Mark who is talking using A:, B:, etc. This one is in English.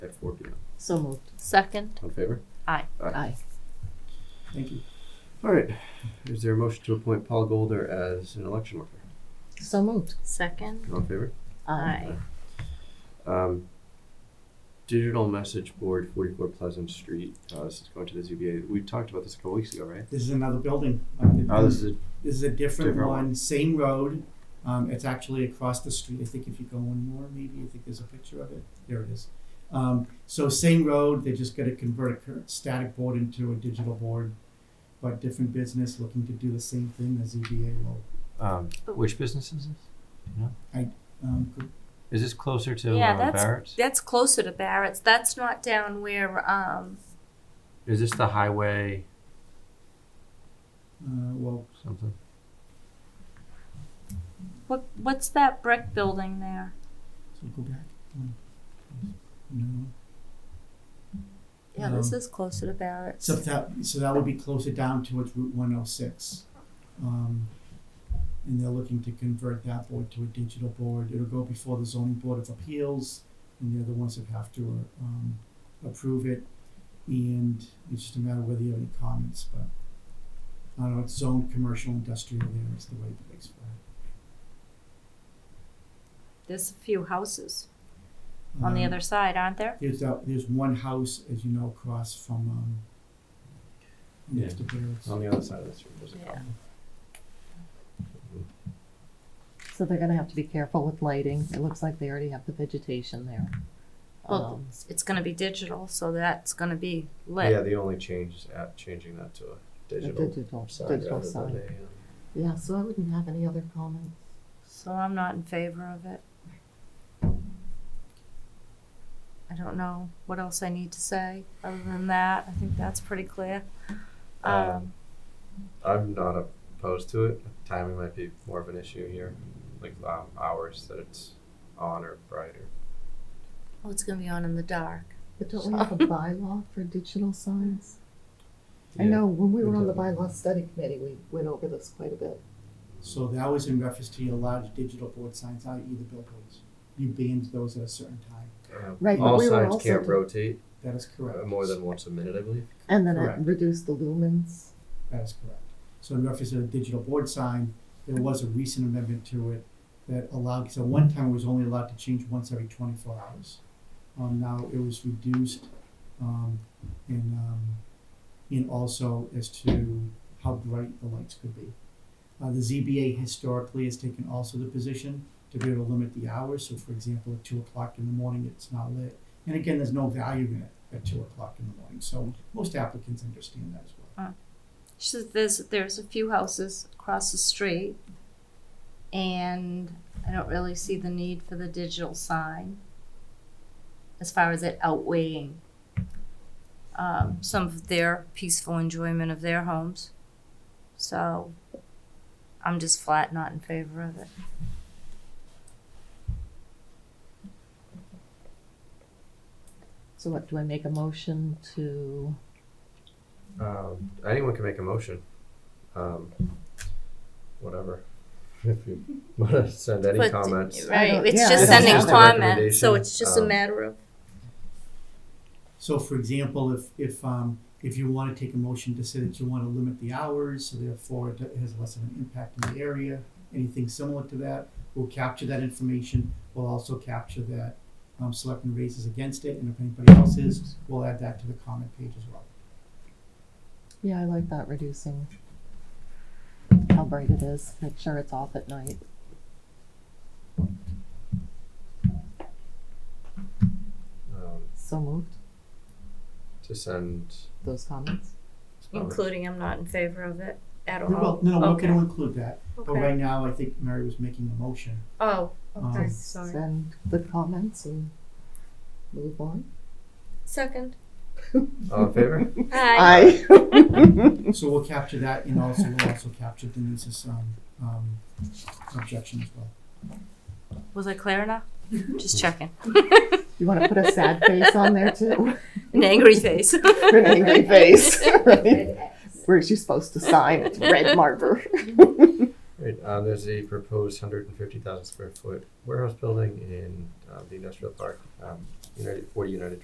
A: at four P M.
B: So moved.
C: Second.
A: On favor?
C: Aye.
B: Aye.
A: Thank you. All right, is there a motion to appoint Paul Golder as an election worker?
B: So moved.
C: Second.
A: All in favor?
C: Aye.
A: Um, digital message board, forty-four Pleasant Street, uh, this is going to the ZBA, we talked about this a couple weeks ago, right?
D: This is another building. Um,
E: Uh,
A: Oh, this is,
D: This is a different
A: Different one.
D: one, same road. Um, it's actually across the street. I think if you go one more, maybe, I think there's a picture of it. There it is. Um, so same road, they're just gonna convert a current static board into a digital board. But different business looking to do the same thing as E ZBA will.
E: Um, which business is this?
D: Um, could-
E: Is this closer to
C: Yeah,
E: uh,
C: that's-
E: Barrett's?
C: That's closer to Barrett's. That's not down where, um,
E: Is this the highway
D: uh, well,
E: something?
C: what, what's that brick building there?
D: so go back. one. No.
C: Yeah, this
D: Um,
C: is closer to Barrett's.
D: So that, so that would be closer down towards Route one oh six. Um, and they're looking to convert that board to a digital board. It'll go before the zoning board of appeals, and they're the ones that have to, um, approve it. And it's just a matter of whether you have any comments, but I don't know, it's zoned commercial industrial there is the way it makes for it.
C: There's a few houses on the
D: Um,
C: other side, aren't there?
D: There's that, there's one house, as you know, across from, um, next to Barrett's.
A: on the other side of the street, there's a couple.
C: Yeah.
B: So they're gonna have to be careful with lighting. It looks like they already have the vegetation there.
C: Well,
B: Um,
C: It's gonna be digital, so that's gonna be
A: Yeah,
C: lit.
A: the only change is at changing that to a
B: the
A: digital
B: digital,
A: sign
B: digital
A: rather than
B: sign.
A: a, um,
B: Yeah, so I wouldn't have any other comments.
C: So I'm not in favor of it. I don't know what else I need to say other than that. I think that's pretty clear. Um,
D: Uh,
A: Um, I'm not opposed to it. Timing might be more of an issue here, like um, hours that it's on or brighter.
C: oh, it's gonna be on in the dark.
B: But don't we have a bylaw for digital signs? I
A: Yeah.
B: know, when we were on the
A: Exactly.
B: bylaw study committee, we went over this quite a bit.
D: So that was in reference to your large digital board signs, i.e. the billboards. You banned those at a certain time.
A: Um,
B: Right, but
A: All
B: we were
A: signs
B: also
A: can't
B: do-
A: rotate
D: That is
A: uh,
D: correct.
A: more than once a minute, I believe.
B: And then it
D: Correct.
B: reduced the lumens.
D: That is correct. So in reference to the digital board sign, there was a recent amendment to it that allowed, so one time it was only allowed to change once every twenty-four hours. Um, now it was reduced, um, and, um, and also as to how bright the lights could be. Uh, the ZBA historically has taken also the position to be able to limit the hours, so for example, at two o'clock in the morning, it's not lit. And again, there's no value in it at two o'clock in the morning, so most applicants understand that as well.
C: She says there's there's a few houses across the street, and I don't really see the need for the digital sign. As far as it outweighing um, some of their peaceful enjoyment of their homes, so I'm just flat not in favor of it.
B: So what, do I make a motion to,
A: Um, anyone can make a motion. Um, whatever. If you want to send any
C: But-
A: comments,
B: I
C: Right,
B: don't-
C: it's
B: yeah,
C: just
B: I don't
C: sending
B: know.
C: comments, so it's just a
A: Um,
C: matter of
D: So for example, if, if, um, if you wanna take a motion to say that you wanna limit the hours, so therefore it has less of an impact in the area, anything similar to that, we'll capture that information, we'll also capture that, um, selectmen raises against it, and if anybody else is, we'll add that to the comment page as well.
B: yeah, I like that, reducing how bright it is, make sure it's off at night.
A: um,
B: So moved,
A: to send.
B: those comments.
C: including I'm not in favor of it at all.
D: We will, no, we're
C: Oh, Okay.
D: gonna include that, but
C: Okay.
D: right now, I think Mary was making a motion.
C: Oh, okay,
D: Um,
C: sorry.
B: Send the comments and move on.
C: Second.
A: All in favor?
C: Hi.
D: So we'll capture that, and also, we'll also capture Denise's, um, um, objection as well.
C: Was I clear enough? Just checking.
B: You wanna put a sad face on there too?
C: An angry face.
B: An angry face, right? Where's you supposed to sign? It's red marker.
A: Right, uh, there's a proposed hundred and fifty thousand square foot warehouse building in, uh, the industrial park, um, United, forty United